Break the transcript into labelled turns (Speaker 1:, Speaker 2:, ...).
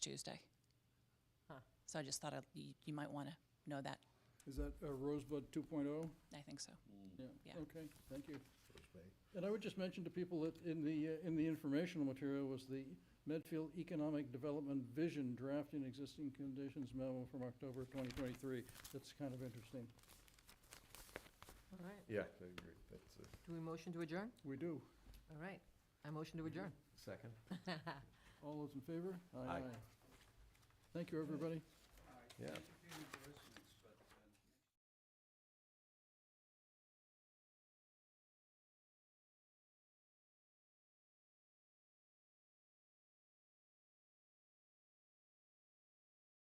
Speaker 1: Tuesday. So I just thought I'd- you you might want to know that.
Speaker 2: Is that uh, Rosebud 2.0?
Speaker 1: I think so.
Speaker 2: Yeah,
Speaker 1: Yeah.
Speaker 2: okay, thank you. And I would just mention to people that in the, uh, in the informational material was the Medfield Economic Development Vision Drafting Existing Conditions memo from October 2023. That's kind of interesting.
Speaker 3: All right,
Speaker 4: Yeah, I agree. That's a
Speaker 3: do we motion to adjourn?
Speaker 2: We do.
Speaker 3: All right, I motion to adjourn.
Speaker 4: second.
Speaker 2: All those in favor?
Speaker 4: Aye.
Speaker 2: Thank you, everybody.
Speaker 4: Yeah.